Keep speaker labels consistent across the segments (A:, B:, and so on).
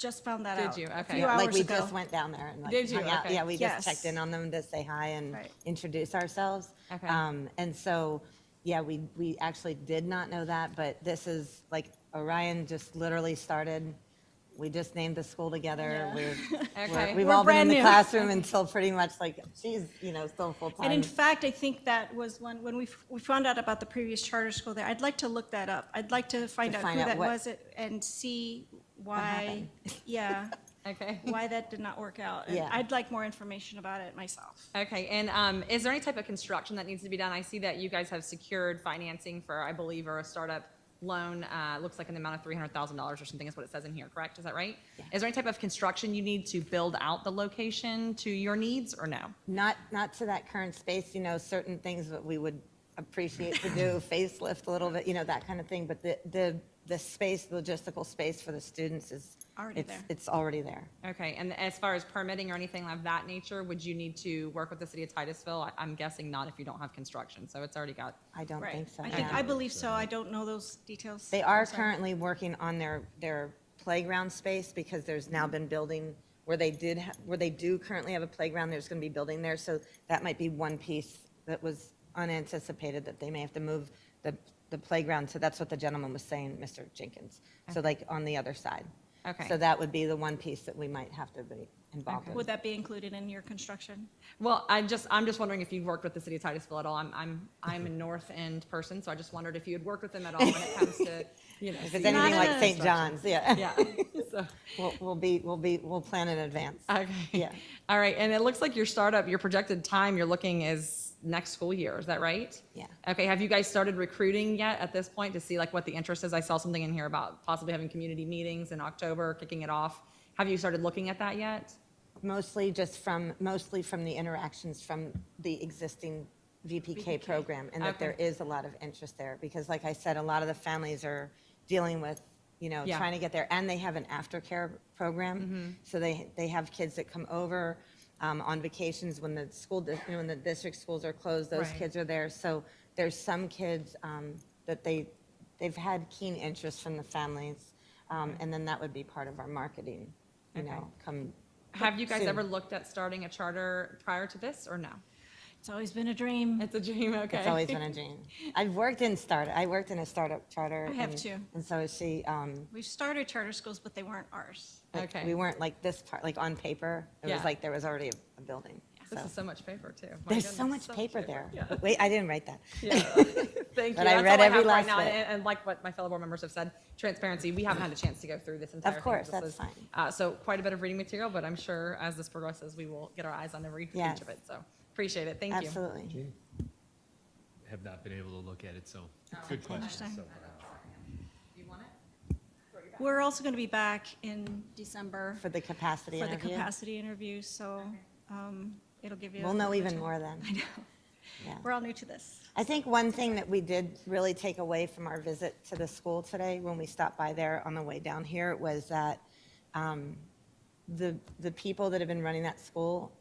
A: just found that
B: Did
A: out.
B: you?
A: a
B: Okay.
A: few
B: Yeah,
A: hours
C: Like, we
A: ago.
C: just went down there and like.
B: Did you?
C: hung out.
B: Okay.
C: Yeah, we just
A: Yes.
C: checked in on them to say hi and
A: Right.
C: introduce ourselves.
B: Okay.
C: Um, And so, yeah, we, we actually did not know that, but this is, like, Orion just literally started. We just named the school together. We're,
B: Okay.
C: we're- we've
A: We're
C: all been in
A: brand
C: the
A: new.
C: classroom until pretty much like, she's, you know, still full-time.
A: And in fact, I think that was when, when we, f- we found out about the previous charter school there. I'd like to look that up. I'd like to find
C: To
A: out
C: find
A: who
C: out
A: that
C: what-
A: was it- and see why,
C: happened.
A: yeah,
B: Okay.
A: why that did not work out. And
C: Yeah.
A: I'd like more information about it myself.
B: Okay, and um, is there any type of construction that needs to be done? I see that you guys have secured financing for, I believe, or a startup loan, uh, looks like an amount of three hundred thousand dollars or something is what it says in here, correct? Is that right? Is there any type of construction you need to build out the location to your needs or no?
C: Not, not to that current space, you know, certain things that we would appreciate to do, facelift a little bit, you know, that kind of thing. But the, the, the space, the logistical space for the students is.
A: Already
C: it's-
A: there.
C: It's already there.
B: Okay, and as far as permitting or anything of that nature, would you need to work with the city of Titusville? I- I'm guessing not if you don't have construction, so it's already got,
C: I don't
A: Right.
C: think so.
A: I
C: yeah.
A: think, I believe so. I don't know those details.
C: They are
A: I'm sorry.
C: currently working on their, their playground space because there's now been building where they did, ha- where they do currently have a playground, there's going to be building there. So that might be one piece that was unanticipated that they may have to move the, the playground. So that's what the gentleman was saying, Mr. Jenkins. So like on the other side.
B: Okay.
C: So that would be the one piece that we might have to be involved
B: Okay.
C: in.
A: Would that be included in your construction?
B: well, I just, I'm just wondering if you've worked with the city of Titusville at all. I'm, I'm, I'm a North End person, so I just wondered if you had worked with them at all when it comes to, you know.
C: If it's
B: city
C: anything like
A: a-
C: St. John's, yeah.
B: Yeah. So,
C: We'll, we'll be, we'll be, we'll plan in advance.
B: okay.
C: Yeah.
B: All right. And it looks like your startup, your projected time you're looking is next school year. Is that right?
C: Yeah.
B: Okay. Have you guys started recruiting yet at this point to see like what the interest is? I saw something in here about possibly having community meetings in October, kicking it off. Have you started looking at that yet?
C: Mostly just from, mostly from the interactions from the existing VPK program, and that there
B: Okay.
C: is a lot of interest there, because like I said, a lot of the families are dealing with, you know,
B: Yeah. Mm-hmm.
C: trying to get there, and they have an aftercare program, so they, they have kids that come over um, on vacations when the school, dis- you know, when the district schools are closed, those
B: Right.
C: kids are there, so there's some kids um, that they, they've had keen interest from the families, um, and then that would be part of our marketing, you
B: Okay.
C: know, come
B: Have you guys
C: Soon.
B: ever looked at starting a charter prior to this or no?
A: It's always been a dream.
B: It's a dream. Okay.
C: It's always been a dream. I've worked in start. I worked in a startup charter.
A: I have
C: and-
A: too.
C: And so she, um,
A: We've started charter schools, but they weren't ours.
C: like,
B: Okay.
C: we weren't like this part, like on paper. It
B: Yeah.
C: was like there was already a- a building.
B: This
C: So-
B: is so much paper too. My
C: There's so
B: goodness,
C: much paper there.
B: Yeah.
C: Wait, I didn't write that.
B: Yeah. Thank you.
C: But I
B: That's all
C: read
B: I
C: every
B: have right
C: last
B: now.
C: bit.
B: And, and like what my fellow board members have said, transparency, we haven't had a chance to go through this entire thing.
C: course,
B: This
C: that's
B: is,
C: fine.
B: Uh, so quite a bit of reading material, but I'm sure as this progresses, we will get our eyes on every
C: Yes.
B: page of it. So appreciate it. Thank you.
C: Absolutely.
D: have not been able to look at it, so good question.
A: Understand.
D: so
B: You want it?
A: We're also going to be back in December
C: For the capacity
A: for the
C: interview.
A: capacity interview, so um, it'll give you.
C: We'll know
A: a-
C: even more then.
A: I know.
C: Yeah.
A: We're all new to this.
C: I think one thing that we did really take away from our visit to the school today, when we stopped by there on the way down here, was that um, the, the people that have been running that school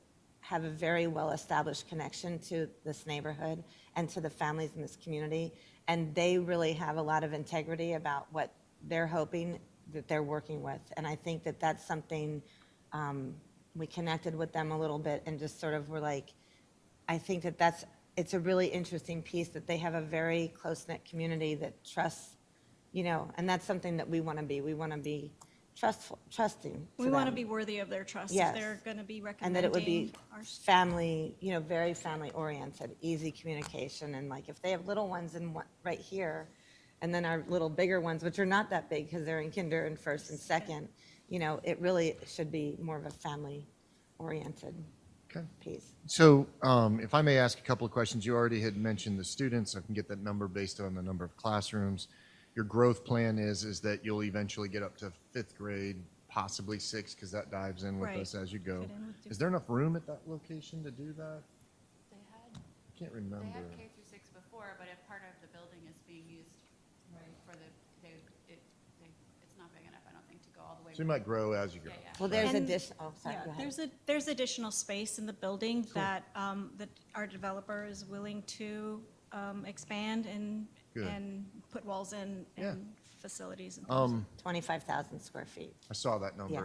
C: have a very well-established connection to this neighborhood and to the families in this community. And they really have a lot of integrity about what they're hoping that they're working with. And I think that that's something, um, we connected with them a little bit and just sort of were like, I think that that's, it's a really interesting piece that they have a very close-knit community that trusts, you know, and that's something that we want to be. We want to be trustful, trusting to
A: We want to
C: them.
A: be worthy of their trust. If
C: Yes.
A: they're going to be
C: And that it would be
A: recommending our
C: family, you know, very family-oriented, easy communication. And like, if they have little ones in one, right here, and then our little bigger ones, which are not that big because they're in kinder and first and second, you know, it really should be more of a family-oriented
E: Okay.
C: piece.
E: So um, if I may ask a couple of questions, you already had mentioned the students. I can get that number based on the number of classrooms. Your growth plan is, is that you'll eventually get up to fifth grade, possibly sixth, because that dives in with
A: Right.
E: us as you go.
A: Fit in with
E: Is there enough room at that location to do that?
F: They had,
E: Can't
F: they
E: remember.
F: had K through six before, but if part of the building is being used for the, they, it, they, it's not big enough, I don't think, to go all the way.
E: So you might grow as you go.
F: Yeah, yeah.
C: Well, there's
A: And-
C: addition, oh, sorry,
A: Yeah,
C: go ahead.
A: there's a, there's additional space in the building that, um, that our developer is willing to, um, expand and,
E: Good.
A: and put walls in
E: Yeah.
A: and facilities and things.
E: Um,
C: 25,000 square feet.
E: I saw that number
C: Yeah.